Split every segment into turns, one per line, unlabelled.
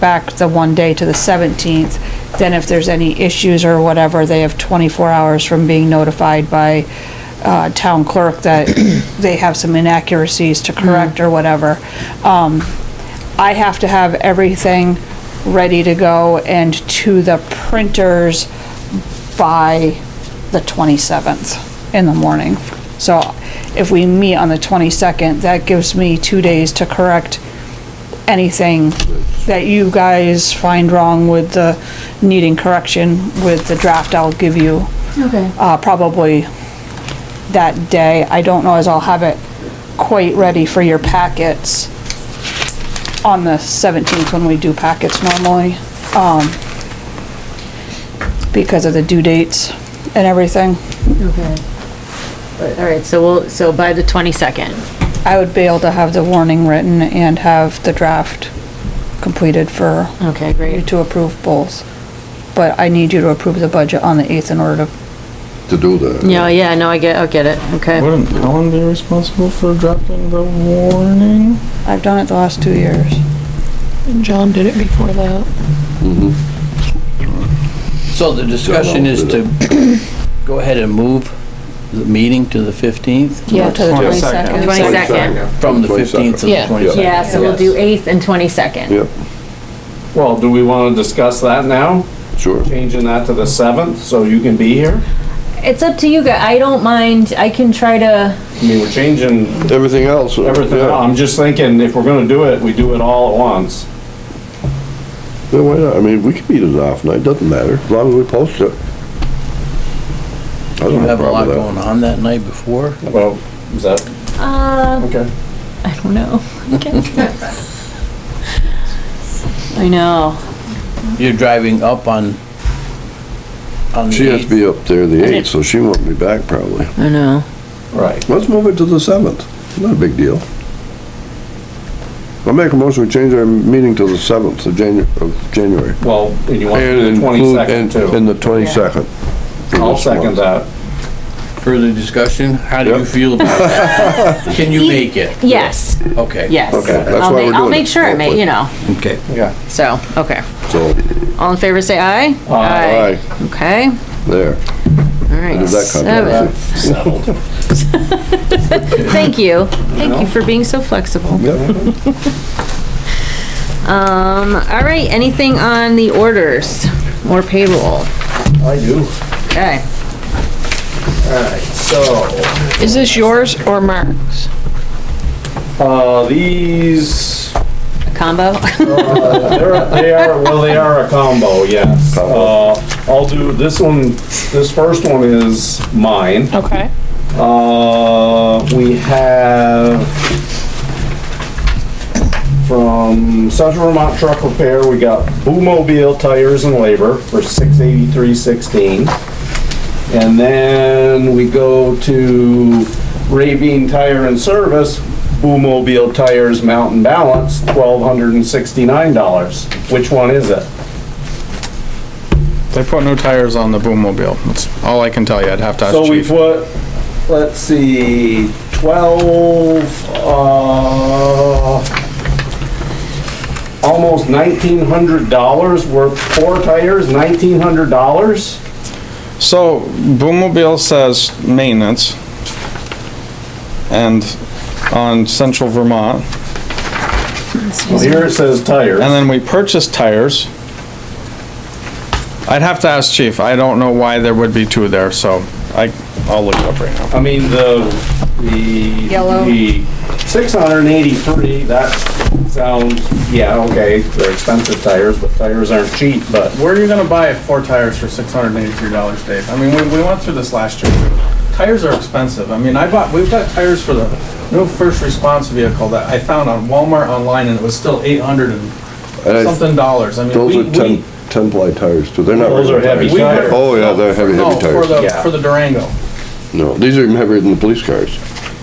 back the one day to the 17th. Then if there's any issues or whatever, they have 24 hours from being notified by uh, town clerk that they have some inaccuracies to correct or whatever. Um, I have to have everything ready to go and to the printers by the 27th in the morning. So if we meet on the 22nd, that gives me two days to correct anything that you guys find wrong with the needing correction with the draft I'll give you,
Okay.
uh, probably that day. I don't know as I'll have it quite ready for your packets on the 17th when we do packets normally, um, because of the due dates and everything.
Okay. But, all right, so we'll, so by the twenty-second.
I would be able to have the warning written and have the draft completed for
Okay,
you
great.
to approve both. But I need you to approve the budget on the 8th in order to,
to do that.
No, yeah, no, I get, I get it. Okay.
Wouldn't Helen be responsible for dropping the warning?
I've done it the last two years.
And John did it before that.
So the discussion is to go ahead and move the meeting to the 15th,
Go
Yeah.
To the
22nd.
22nd.
Twenty-second.
from the 15th to the
Yeah.
22nd.
Yeah, so we'll do eighth and twenty-second.
Yep,
Well, do we want to discuss that now?
sure.
Changing that to the 7th, so you can be here?
It's up to you guys. I don't mind. I can try to,
I mean, we're changing
Everything else. uh,
everything.
yeah.
out. I'm just thinking, if we're gonna do it, we do it all at once.
Yeah, why not? I mean, we can meet it off night, doesn't matter, as long as we post it. I
You
don't
have a
problem
lot
with that.
going on that night before.
Well, is that,
uh,
okay.
I don't know. I guess. I know.
You're driving up on, on
She has to
the 8th.
be up there the eighth, so she won't be back probably.
I know.
Right.
Let's move it to the seventh. Not a big deal. I'll make a motion, we change our meeting to the seventh of Janu, of January.
Well, and you want
And
the
include, and,
22nd too.
and the twenty-second.
I'll second that.
Further discussion, how do you
Yep.
feel about that? Can you make it?
Yes,
Okay.
yes.
Okay, that's
I'll
why
ma-
we're
I'll
doing
make
it.
sure, I ma- you know,
Okay.
Yeah.
so, okay.
So,
All in favor, say aye?
aye,
Okay,
there.
all right.
There's that
Seven.
controversy.
Settled.
Thank you. Thank you for being so flexible.
Yep.
Um, all right, anything on the orders or payroll?
I do.
Okay.
Alright, so,
Is this yours or Mark's?
uh, these,
Combo?
They're- They are, well, they are a combo, yes. Uh, I'll do, this one, this first one is mine.
Okay.
Uh, we have from Central Vermont Truck Repair, we got Boomobile Tires and Labor for six eighty-three sixteen. And then we go to Ravine Tire and Service, Boomobile Tires Mountain Balance, twelve hundred and sixty-nine dollars. Which one is it?
They put new tires on the boommobile. That's all I can tell you. I'd have to ask
So we
chief.
put, let's see, twelve, uh, almost nineteen hundred dollars worth, four tires, nineteen hundred dollars?
So boommobile says maintenance. And on Central Vermont.
Well, here it says tires.
And then we purchased tires. I'd have to ask chief. I don't know why there would be two there, so I, I'll look it up right now.
I mean, the, the.
Yellow.
The six hundred and eighty-three, that sounds, yeah, okay, they're expensive tires, but tires aren't cheap, but
Where are you gonna buy four tires for six hundred and eighty-three dollars, Dave? I mean, we, we went through this last year. too. Tires are expensive. I mean, I bought, we've got tires for the new first response vehicle that I found on Walmart online and it was still eight hundred and
And I-
something dollars. I mean,
Those
we,
are ten,
we.
ten ply tires too. They're not.
Those are
regular
heavy tires.
Oh, yeah, they're heavy,
No,
heavy
for
tires.
the, for the Durango,
No, these are even heavier than the police cars.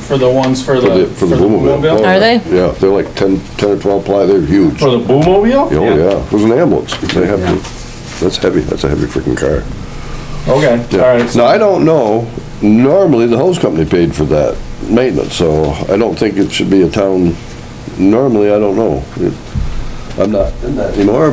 for the ones for
For
the.
Uh,
the, for the Boomobile. Oh,
Are
yeah.
they?
Yeah, they're like 10, 10 or 12 ply, they're huge.
for
Oh,
the Boomobile?
yeah, it was an ambulance, they have to, that's heavy, that's a heavy freaking car. Oh.
Okay,
Yeah.
all right.
Now, I don't know, normally the hose company paid for that maintenance, so I don't think it should be a town, normally, I don't know. I'm not in that anymore,